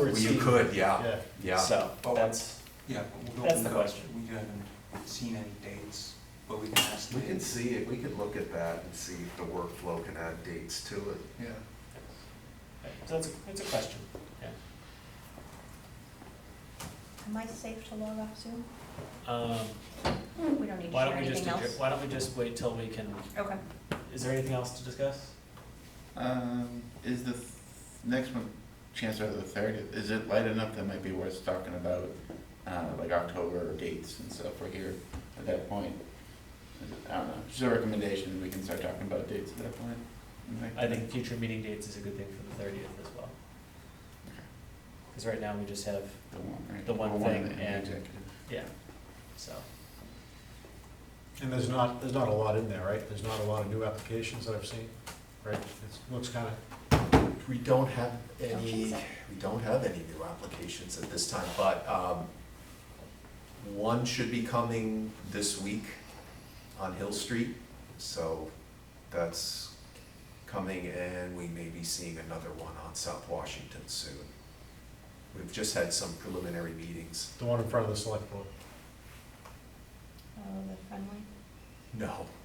Well, You could, yeah, Yeah. yeah. So, But that's, Yeah, but we don't. That's the we don't- question. We haven't seen any dates, but we can ask the We can dates. see it, we can look at that and see if the workflow can add dates to it. Yeah. so that's, it's a question. Am I safe to log off Zoom? Um, We don't need to why share don't we just, anything adjourn- else? why don't we just wait till we can, Okay. is there anything else to discuss? Um, is the th- next one, chances are the thirtieth, is it light enough that might be worth talking about, uh, like October dates and stuff we're here at that point? Is it- I don't know, just a recommendation, we can start talking about dates at that point. Okay. I think future meeting dates is a good thing for the thirtieth as well. Cause right now we just have, The one, right? the one Or thing of the- and- executive. yeah, so, And there's not, there's not a lot in there, right? There's not a lot of new applications that I've seen, right? It looks kind of, We don't have Don't any, think so. we don't have any new applications at this time, but, um, one should be coming this week on Hill Street, so that's coming, and we may be seeing another one on South Washington soon. We've just had some preliminary meetings. the one in front of the select board. Oh, the friendly? No.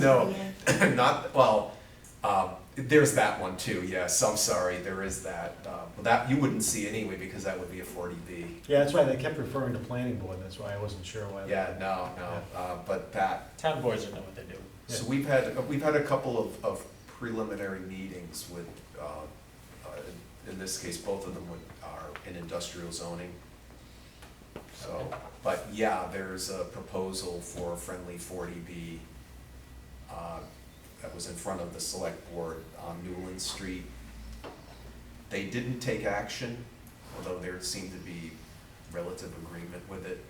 No. Yeah. not well. Um, there's that one too. Yes, I'm sorry. There is that. Uh, well, that you wouldn't see anyway because that would be a 40b. Yeah, that's why they kept referring to planning board, that's why I wasn't sure why. they- Yeah, no, no. Uh, but that. town boards don't know what they're doing. So we've had we've had a couple of, of preliminary meetings with, uh, uh, in this case, both of them with, are in industrial zoning. So, Okay. but yeah, there's a proposal for a friendly 40b uh, that was in front of the select board on Newland Street. They didn't take action, although there seemed to be relative agreement with it.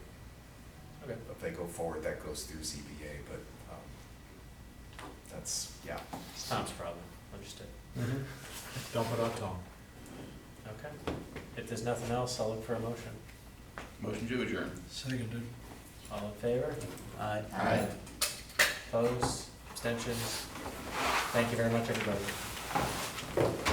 Okay. If they go forward, that goes through ZBA, but um, that's, yeah. It's Tom's problem, understood. Mhm. Dump it up, Tom. Okay, if there's nothing else, I'll look for a motion. Motion to adjourn. Seconded. All in favor? Aye. Aye. Opposed, abstentions? Thank you very much, everybody.